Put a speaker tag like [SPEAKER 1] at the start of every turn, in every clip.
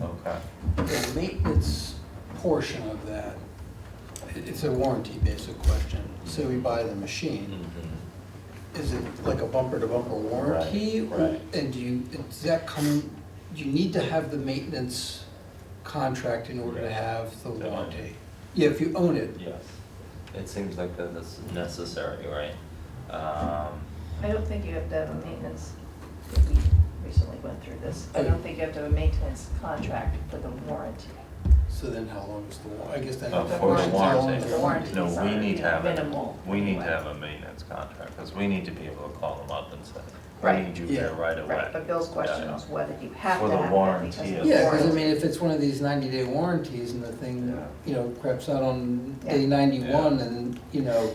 [SPEAKER 1] Yeah.
[SPEAKER 2] the maintenance portion of that, it- it's a warranty-based question. Say we buy the machine,
[SPEAKER 1] Mm-hmm.
[SPEAKER 2] is it like a bumper-to-bumper warranty?
[SPEAKER 1] Right, right.
[SPEAKER 2] And do you, does that come, you need to have the maintenance contract in order to have the
[SPEAKER 3] To own it.
[SPEAKER 2] warranty? Yeah, if you own it,
[SPEAKER 3] Yes,
[SPEAKER 1] It seems like that that's necessary, right? Um,
[SPEAKER 4] I don't think you have to have a maintenance, we recently went through this, I don't think you have to have a maintenance contract for the warranty.
[SPEAKER 2] so then how long is the war, I guess that.
[SPEAKER 1] Uh,
[SPEAKER 4] The
[SPEAKER 1] for the
[SPEAKER 2] depends on how long
[SPEAKER 1] warranty.
[SPEAKER 2] the warranty
[SPEAKER 1] No,
[SPEAKER 4] warranties
[SPEAKER 1] we
[SPEAKER 4] are,
[SPEAKER 1] need to
[SPEAKER 4] you know,
[SPEAKER 1] have, a-
[SPEAKER 4] minimal
[SPEAKER 1] we need to
[SPEAKER 4] anyway.
[SPEAKER 1] have a maintenance contract, because we need to be able to call them up and say, I
[SPEAKER 4] Right.
[SPEAKER 1] need you here
[SPEAKER 2] Yeah.
[SPEAKER 1] right away.
[SPEAKER 4] Right, but Bill's question
[SPEAKER 1] Yeah.
[SPEAKER 4] was whether you have
[SPEAKER 1] For
[SPEAKER 4] to
[SPEAKER 1] the
[SPEAKER 4] have that
[SPEAKER 1] warranty,
[SPEAKER 4] because of
[SPEAKER 1] yeah.
[SPEAKER 4] the
[SPEAKER 2] Yeah, because I
[SPEAKER 4] warranty.
[SPEAKER 2] mean, if it's one of these ninety-day warranties and the thing,
[SPEAKER 1] Yeah.
[SPEAKER 2] you know, craps out on day
[SPEAKER 4] Yeah.
[SPEAKER 2] ninety-one and, you know,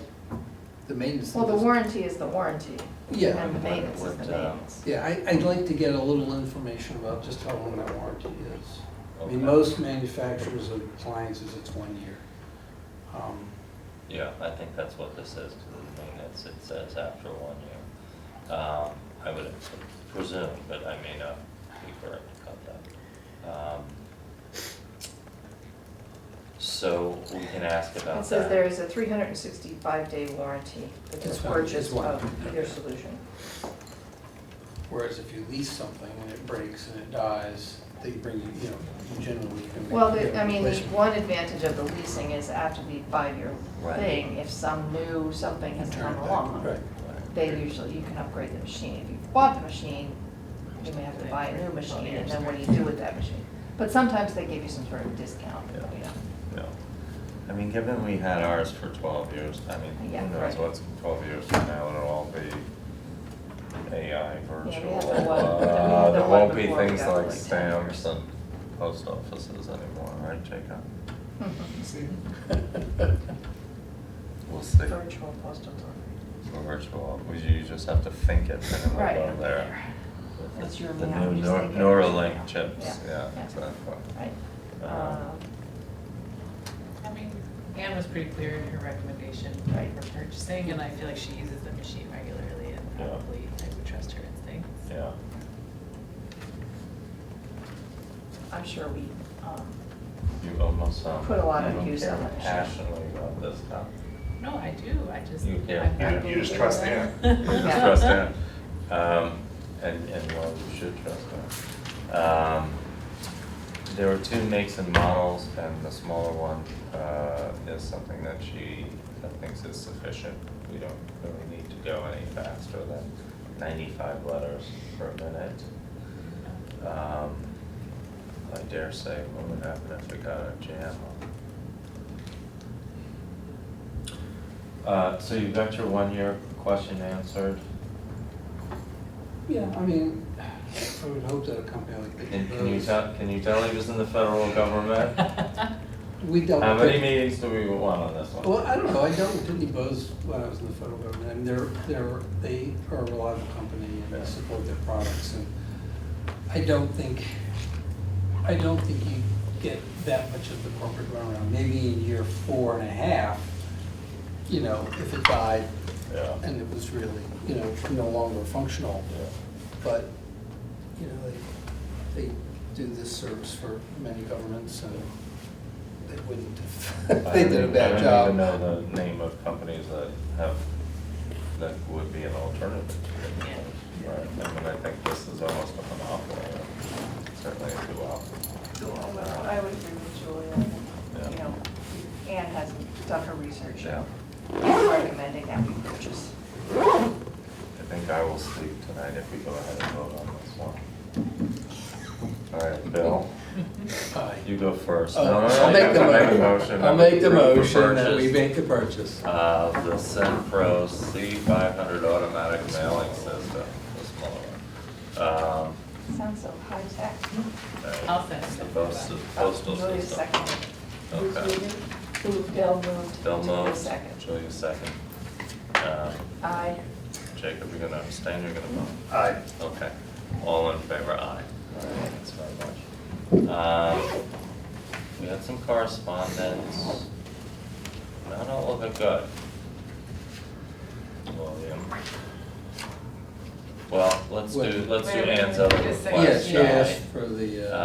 [SPEAKER 2] the maintenance.
[SPEAKER 4] Well, the
[SPEAKER 2] is-
[SPEAKER 4] warranty is the warranty.
[SPEAKER 2] Yeah.
[SPEAKER 4] And the maintenance is the
[SPEAKER 1] Would, uh,
[SPEAKER 4] maintenance.
[SPEAKER 2] Yeah, I, I'd like to get a little information about just how long that warranty is. I
[SPEAKER 1] Okay.
[SPEAKER 2] mean, most manufacturers of appliances, it's one year. Um,
[SPEAKER 1] Yeah, I think that's what this is, because the maintenance, it says after one year. Um, I would presume, but I may not be correct about that. Um, So we can ask about that.
[SPEAKER 4] It says there is a three hundred and sixty-five day warranty for the
[SPEAKER 2] It's fine, it's
[SPEAKER 4] purchase
[SPEAKER 2] fine.
[SPEAKER 4] of your solution.
[SPEAKER 2] Whereas if you lease something and it breaks and it dies, they bring you, you know, you generally can. make-
[SPEAKER 4] Well,
[SPEAKER 2] get
[SPEAKER 4] the-
[SPEAKER 2] a
[SPEAKER 4] I mean, the
[SPEAKER 2] replacement.
[SPEAKER 4] one advantage of the leasing is after the five-year
[SPEAKER 1] Right.
[SPEAKER 4] thing, if some new something has
[SPEAKER 2] Turn it
[SPEAKER 4] come
[SPEAKER 2] back,
[SPEAKER 4] along,
[SPEAKER 2] Right.
[SPEAKER 1] Right.
[SPEAKER 4] they usually, you can upgrade the machine. If you bought the machine, you may have to buy a new machine, and then what do you do with that machine? But sometimes they give you some sort of discount, you know.
[SPEAKER 1] No. I mean, given we had ours for twelve years, I mean,
[SPEAKER 4] Yeah,
[SPEAKER 1] who knows
[SPEAKER 4] right.
[SPEAKER 1] what's twelve years from now, it'll all be AI, virtual.
[SPEAKER 4] the one-
[SPEAKER 1] uh,
[SPEAKER 4] the
[SPEAKER 1] There
[SPEAKER 4] one
[SPEAKER 1] won't be
[SPEAKER 4] before we
[SPEAKER 1] things like
[SPEAKER 4] got like 10 years.
[SPEAKER 1] stamps and post offices anymore, right, Jacob? We'll see.
[SPEAKER 4] Virtual postal delivery.
[SPEAKER 1] For virtual, we- you just have to think it and
[SPEAKER 4] Right.
[SPEAKER 1] it'll go there. With
[SPEAKER 4] That's
[SPEAKER 1] the-
[SPEAKER 4] your
[SPEAKER 1] The
[SPEAKER 4] map,
[SPEAKER 1] new
[SPEAKER 4] you
[SPEAKER 1] Nor-
[SPEAKER 4] think it.
[SPEAKER 1] Neuralink chips,
[SPEAKER 4] Yeah,
[SPEAKER 1] yeah,
[SPEAKER 4] yeah.
[SPEAKER 1] exactly.
[SPEAKER 4] Right.
[SPEAKER 1] Um,
[SPEAKER 5] I mean, Anne was pretty clear in her recommendation
[SPEAKER 4] Right.
[SPEAKER 5] for purchasing, and I feel like she uses the machine regularly and
[SPEAKER 1] Yeah.
[SPEAKER 5] probably I would trust her instincts.
[SPEAKER 1] Yeah.
[SPEAKER 4] I'm sure we, um,
[SPEAKER 1] You almost sound.
[SPEAKER 4] Put a lot of
[SPEAKER 1] you don't
[SPEAKER 4] use
[SPEAKER 1] care
[SPEAKER 4] on it.
[SPEAKER 1] Passionately about this stuff.
[SPEAKER 5] No, I do, I just.
[SPEAKER 1] You- yeah,
[SPEAKER 5] I'm
[SPEAKER 1] you-
[SPEAKER 5] not
[SPEAKER 4] you just
[SPEAKER 5] really
[SPEAKER 4] trust
[SPEAKER 5] aware.
[SPEAKER 4] Anne.
[SPEAKER 1] You just
[SPEAKER 4] Oh, Yeah.
[SPEAKER 1] trust Anne. Um, and, and well, you should trust Anne. Um, there were two makes and models, and the smaller one, uh, is something that she thinks is sufficient. We don't really need to go any faster than ninety-five letters per minute. Um, I dare say, what would happen if we got a jam Uh, so you've got your one-year question answered.
[SPEAKER 2] Yeah, I mean, I would hope that a company like Pitney
[SPEAKER 1] And can you
[SPEAKER 2] Bowes-
[SPEAKER 1] tell, can you tell he was in the federal government?
[SPEAKER 2] We dealt with.
[SPEAKER 1] How many
[SPEAKER 2] Pitney-
[SPEAKER 1] meetings Uh, do we want on this one?
[SPEAKER 2] Well, I don't know, I dealt with Pitney Bowes when I was in the federal government, and they're, they're, they are a reliable company and
[SPEAKER 1] Yeah.
[SPEAKER 2] they support their products, and I don't think, I don't think you get that much of the corporate runaround, maybe in year four and a half, you know, if it died
[SPEAKER 1] Yeah,
[SPEAKER 2] and it was really, you know, no longer functional,
[SPEAKER 1] yeah.
[SPEAKER 2] but, you know, they, they do this service for many governments, and they wouldn't if they did a bad job.
[SPEAKER 1] I don't even know the name of companies that have, that would be an alternative. to it.
[SPEAKER 5] Yeah.
[SPEAKER 1] Right, I mean, I think this is almost a monopoly, or certainly a duopoly. Uh,
[SPEAKER 4] Oh, I would agree with Julia, you
[SPEAKER 1] Yeah.
[SPEAKER 4] know, Anne has done her research.
[SPEAKER 1] Yeah.
[SPEAKER 4] and Recommending that we purchase.
[SPEAKER 1] I think I will sleep tonight if we go ahead and vote on this one. All right, Bill,
[SPEAKER 2] Aye.
[SPEAKER 1] you go first. No, no, no,
[SPEAKER 2] Oh, I'll
[SPEAKER 1] you
[SPEAKER 2] make
[SPEAKER 1] have
[SPEAKER 2] the
[SPEAKER 1] to
[SPEAKER 2] motion. I'll make the
[SPEAKER 1] approve for
[SPEAKER 2] motion that we
[SPEAKER 1] purchase
[SPEAKER 2] make the purchase.
[SPEAKER 1] Of the Centro C five hundred automatic mailing system, the smaller one. Um,
[SPEAKER 4] Sounds so high tech.
[SPEAKER 1] uh,
[SPEAKER 5] I'll second
[SPEAKER 1] the
[SPEAKER 5] it.
[SPEAKER 1] postal- Postal
[SPEAKER 4] Uh, Julia
[SPEAKER 1] system.
[SPEAKER 4] seconded. Who's
[SPEAKER 1] Okay.
[SPEAKER 4] moving? Who, Bill moved.
[SPEAKER 1] Bill
[SPEAKER 4] Julia
[SPEAKER 1] moves,
[SPEAKER 4] seconded.
[SPEAKER 1] Julia second. Um,
[SPEAKER 4] Aye.
[SPEAKER 1] Jacob, you're gonna abstain, you're gonna vote? Aye. Okay, all in favor, aye. Thanks very much. Um, We had some correspondence, not all of it good. William. Well, let's do, let's do
[SPEAKER 5] Wait, wait,
[SPEAKER 1] Anne's
[SPEAKER 5] wait,
[SPEAKER 1] other request,
[SPEAKER 5] just a second.
[SPEAKER 1] shall
[SPEAKER 2] Yes,
[SPEAKER 1] we?
[SPEAKER 2] she asked for the, uh.